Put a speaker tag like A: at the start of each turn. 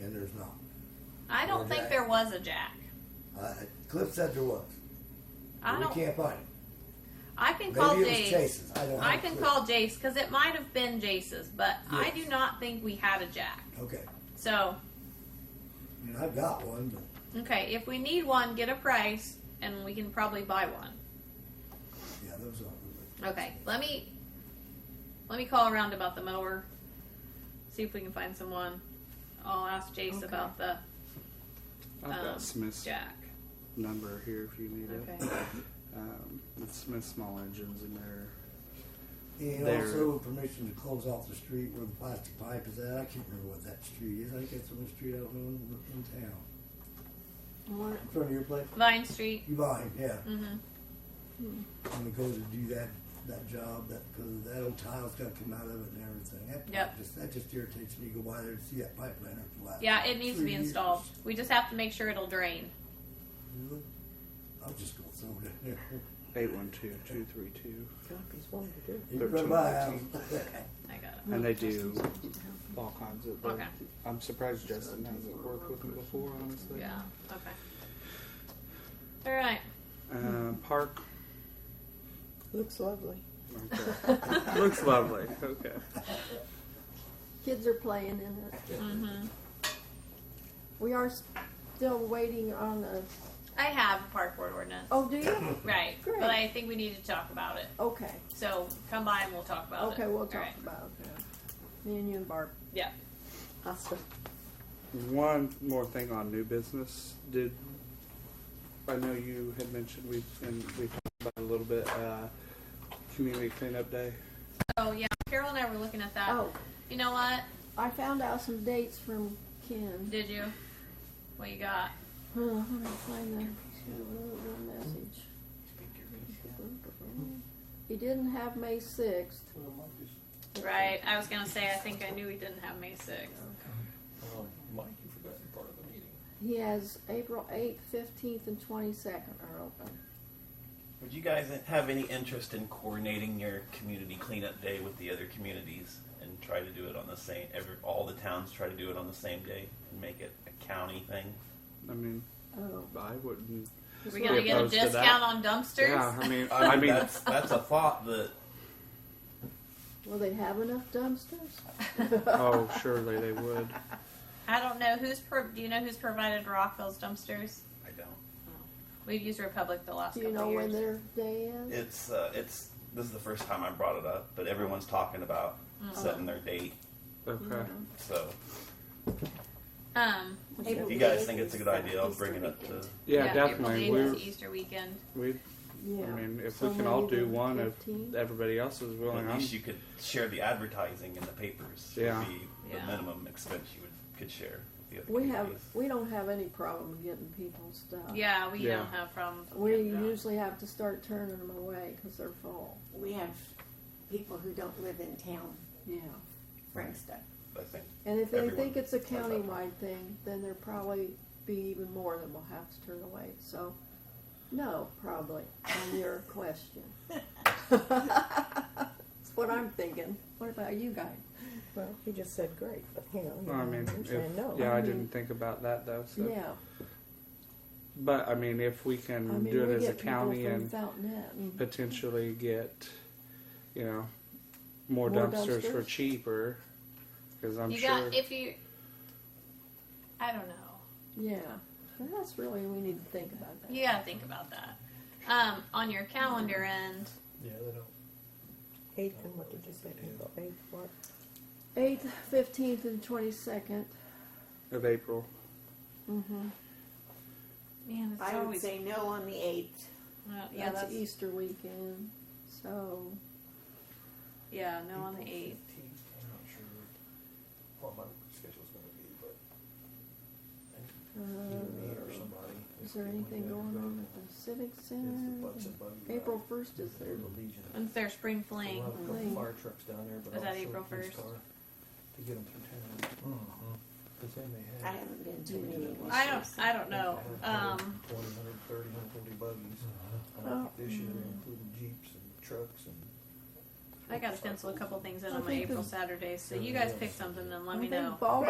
A: there's not.
B: I
A: Or
B: don't think
A: Jack.
B: there was a Jack.
A: Uh, Cliff said there was. but
B: I
A: we
B: don't.
A: can't find it.
B: I can
A: Maybe
B: call
A: it was
B: Jace.
A: Chase's. I don't.
B: I
A: have a
B: can
A: clue.
B: call Jace because it might have been Jace's, but I
A: Yes.
B: do not think we had a Jack.
A: Okay,
B: So
A: I mean, I've got one, but
B: okay, if we need one, get a price, and we can probably buy one.
A: yeah, those aren't.
B: Okay, let me let me call around about the mower. See if we can find someone. I'll ask Jace
C: Okay.
B: about the
C: I've
B: Um,
C: got Smith's
B: Jack.
C: number here if you need it.
B: Okay.
C: Um, it's Smith Small Engines in there.
A: And
C: They're-
A: also permission to close off the street where the plastic pipe is at. I can't remember what that street is. I think that's the one street out in, in town. In front of your place?
B: Vine Street.
A: You mine, yeah.
B: Mm-hmm.
A: And we go to do that, that job, that, cause that old tile's gotta come out of it and everything. That pipe
B: Yep.
A: just- That just irritates me. You go by there and see that pipe liner for the last.
B: Yeah, it needs to
A: three
B: be
A: years.
B: installed. We just have to make sure it'll drain.
A: Really? I'm just gonna throw it in there.
C: 812 232.
D: Copies wanted to do.
A: You run my house.
B: I got it.
C: And they do all kinds of
B: Hmm. Okay.
C: I'm surprised Justin hasn't worked with them before, honestly.
B: Yeah. Okay. All right.
C: Uh, park.
D: Looks lovely.
C: Okay. Looks lovely. Okay.
E: Kids are playing in it.
B: Mm-hmm.
E: We are still waiting on a,
B: I have a park board ordinance.
E: oh, do you?
B: Right.
E: Great.
B: But I think we need to talk about it.
E: Okay,
B: So come by and we'll talk about it.
E: okay, we'll
B: All
E: talk
B: right.
E: about it. Me and you and Barb.
B: Yeah.
E: Awesome.
C: One more thing on new business. Did I know you had mentioned we and we talked about it a little bit uh, community cleanup day?
B: Oh yeah. Carol and I were looking at that.
E: Oh,
B: You know what?
E: I found out some dates from Ken.
B: Did you? What you got?
E: Huh, Let me find the, shoot, where was the message. He didn't have May sixth.
B: Right. I was gonna say I think I knew we didn't have May 6th.
F: Oh,
G: Um, Mike, you forgot you're part of the meeting.
E: He has April eighth, fifteenth, and twenty-second are open.
F: Would you guys have any interest in coordinating your community cleanup day with the other communities and try to do it on the same, every, all the towns try to do it on the same day and make it a county thing?
C: I mean,
E: Oh,
C: I wouldn't.
E: this
B: We
E: one-
B: gonna
C: We
B: get a
C: opposed to that?
B: discount on dumpsters?
C: Yeah, I mean, I mean,
F: that's, that's a thought that,
E: Will they have enough dumpsters?
C: oh, surely they would.
B: I don't know who's pro- do you know who's provided Rockville's dumpsters?
F: I don't.
B: We've used Republic the last
E: Do you
B: couple
E: know
B: of years.
E: when their day is?
F: It's, uh, it's, this is the first time I brought it up, but everyone's talking about setting their date,
C: Okay.
F: so
B: um
F: if you guys think it's a good idea, I'll bring it up to,
C: Yeah,
B: April
C: definitely.
B: Day
C: We
B: is
C: are
B: Easter weekend.
C: we.
E: Yeah.
C: I mean, if
E: So
C: we can all
E: maybe
C: do
E: the
C: one, if
E: 15th?
C: everybody else is willing,
F: at
C: I'm,
F: least you could share the advertising in the papers. would
C: Yeah.
F: Be the
B: Yeah.
F: minimum expense you would, could share with the other
E: We have,
F: communities.
E: we don't have any problem getting people's stuff.
B: Yeah, we
C: Yeah.
B: don't have problems. with
E: Uh, We
B: that.
E: usually have to start turning them away because they're full.
D: We have people who don't live in town
E: Yeah.
D: bring stuff.
F: I think
E: And if they
F: Everyone
E: think it's a
F: does that.
E: countywide thing, then there'll probably be even more that we'll have to turn away. So, no, probably, on your question. That's what I'm thinking. What about you guys?
D: Well, he just said great, but you know,
C: Well, I mean,
D: I'm
C: if,
D: saying no.
C: yeah, I didn't think about that though. So.
E: Yeah.
C: But I mean, if we can
E: I mean,
C: do it
E: we
C: as a
E: get people
C: county
E: from
C: and
E: Fountainette and-
C: potentially get, you know, more,
E: More
C: dumpsters, for
E: dumpsters?
C: cheaper. Because I'm
B: you
C: sure.
B: got if you I don't know.
E: yeah. And that's really, we need to think about that.
B: You gotta think about that. Um, on your calendar end,
G: Yeah, they don't.
D: Eighth and what did you say? April eighth, what?
E: Eighth, fifteenth, and twenty-second.
C: of April.
E: Mm-hmm.
B: man, it's
D: I would
B: always
D: say no on the eighth.
B: Well, yeah,
E: That's
B: that's,
E: Easter weekend, so
B: yeah, no on the eighth.
G: I'm not sure what my schedule's gonna be, but
E: uh,
G: either me or somebody.
E: is there anything going on at the Civic
G: It's the
E: Center?
G: Bucks and Buggy.
E: April
G: ride.
E: first is their
G: They're the Legion.
B: When's their spring
G: So
B: fling?
G: We'll have a
E: Fling.
G: couple fire trucks down there, but
B: Was that
G: also a
B: April
G: police
B: 1st?
G: car To get them through town. Cause they may
D: I
G: have.
D: haven't been to any of these.
B: I don't I don't know. Um,
G: Twenty, hundred, thirty, hundred, forty buggies. I
E: Oh.
G: think This year, including jeeps and trucks and.
B: I gotta pencil a couple things in
E: I
B: on my
E: think
B: April
E: the-
B: Saturdays, so you guys pick something and let me
E: I think
B: know.
E: ball